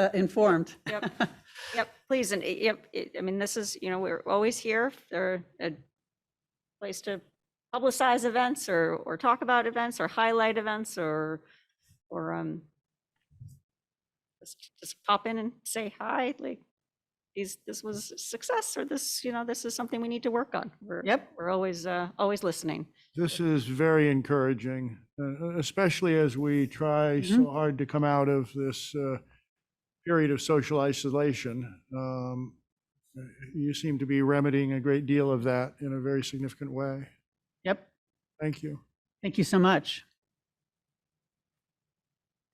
uh, informed. Yep, yep, please, and it- yep, it- I mean, this is, you know, we're always here for a place to publicize events or, or talk about events or highlight events or, or, um, just just pop in and say hi, like, these, this was a success or this, you know, this is something we need to work on. We're, Yep. we're always, uh, always listening. This is very encouraging, uh, especially as we try so hard to come out of this uh, period of social isolation. Um, You seem to be remedying a great deal of that in a very significant way. Yep. Thank you. Thank you so much.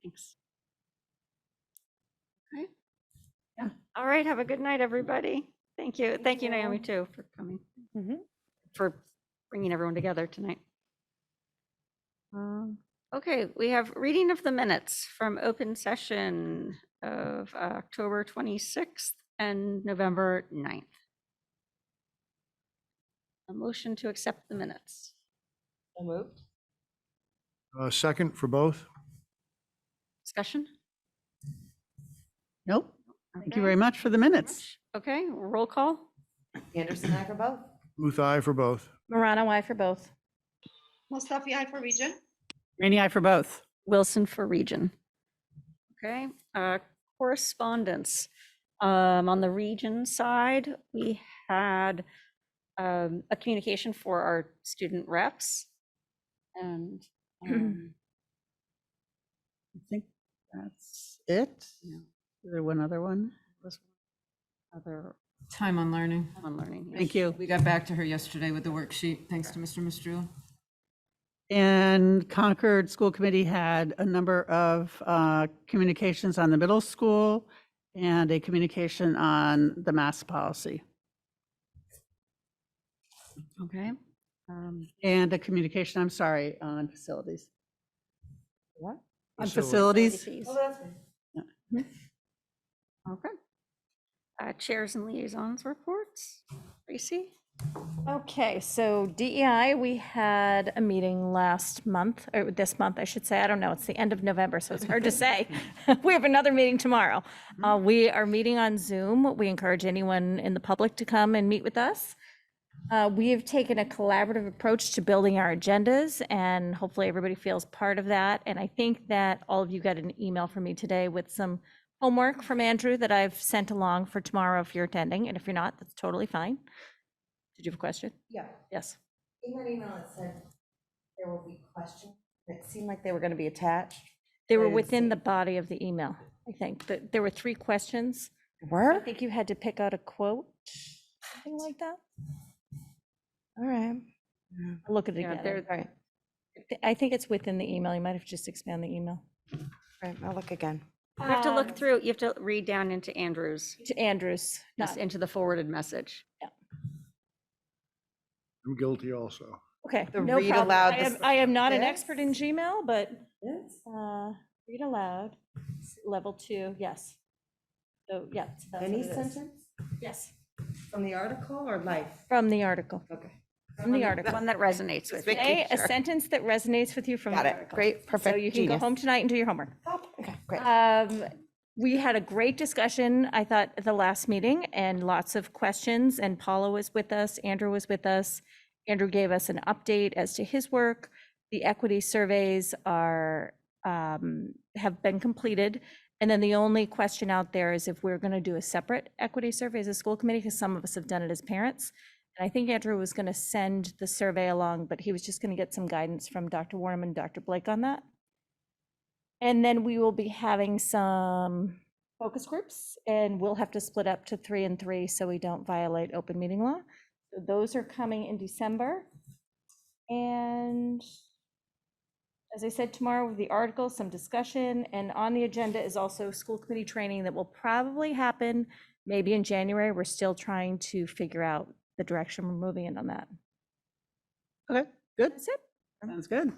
Thanks. Okay. Okay. Yeah. All right, have a good night, everybody. Thank you. Thank you, Naomi, too, for coming. Mm-hmm. Mhm. For bringing everyone together tonight. Um, Okay, we have reading of the minutes from open session of uh, October 26th and November 9th. A motion to accept the minutes. So moved. Uh, Second for both? Discussion? Nope. Thank you Okay. very much for the minutes. Okay, roll call? Anderson, I for both. Booth, aye for both. Morano, I for both. Mustafi, I for region. Rainy eye for both. Wilson for region. Okay, uh, correspondence. Um, On the region side, we had um, a communication for our student reps. And um, I think that's it. Yeah. Is there one other one? was other Time on learning. on learning. yes. Thank you. We got back to her yesterday with the worksheet, thanks to Mr. Mistrula. And Concord School Committee had a number of uh, communications on the middle school and a communication on the mask policy Okay. um, and a communication, I'm sorry, on facilities. What? On Facilities. facilities, ACs. that's me. Okay. Uh, Chairs and liaisons reports. Tracy? Okay, so DEI, we had a meeting last month, or this month, I should say. I don't know, it's the end of November, so it's hard to say. We have another meeting tomorrow. Uh, We are meeting on Zoom. We encourage anyone in the public to come and meet with us. Uh, We have taken a collaborative approach to building our agendas, and hopefully everybody feels part of that. And I think that all of you got an email from me today with some homework from Andrew that I've sent along for tomorrow if you're attending, and if you're not, that's totally fine. Did you have a question? Yeah, Yes. in that email it said there will be questions. It seemed like they were going to be attached. They I were didn't within see. the body of the email, I think. Th- There were three questions. I Were? think you had to pick out a quote, something like that. All right. I'll Look at it Yeah, again. they're- All right, Th- I think it's within the email. You might have just expanded the email. all right, I'll look again. You have to Um, look through, you have to read down into Andrew's, To Andrews, just not, into the forwarded message. I'm guilty also. okay, The no read problem. aloud I the am, I am not an expert in sentence? Gmail, but uh, read aloud, s- level two, yes. So, yeah. so that's Any what it is. sentence Yes, from the article or life? from the article, Okay. from the article. One that resonates with you. Say a sentence that resonates with you from Got the it. article. Great, perfect. So you can go Genius. home tonight and do your homework. Okay, great. Um, we had a great discussion, I thought, at the last meeting and lots of questions. And Paula was with us, Andrew was with us. Andrew gave us an update as to his work. The equity surveys are, um, have been completed. And then the only question out there is if we're going to do a separate equity survey as a school committee, because some of us have done it as parents. And I think Andrew was going to send the survey along, but he was just going to get some guidance from Dr. Warnham and Dr. Blake on that. And then we will be having some focus groups and we'll have to split up to three and three so we don't violate open meeting law. So Those are coming in December. And as I said, tomorrow with the article, some discussion, and on the agenda is also school committee training that will probably happen maybe in January. We're still trying to figure out the direction we're moving in on that. okay, good, That's it. sounds good.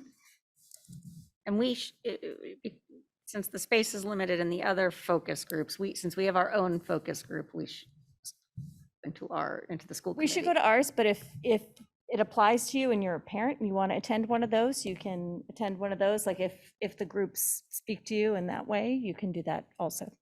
And we, sh- i- i- be- since the space is limited in the other focus groups, we, since we have our own focus group, we should into our, into the school We should go to ours, but if, if it applies to you and you're a parent and you want to attend one of those, you can attend one of those. Like if, if the groups speak to you in that way, you can do that also.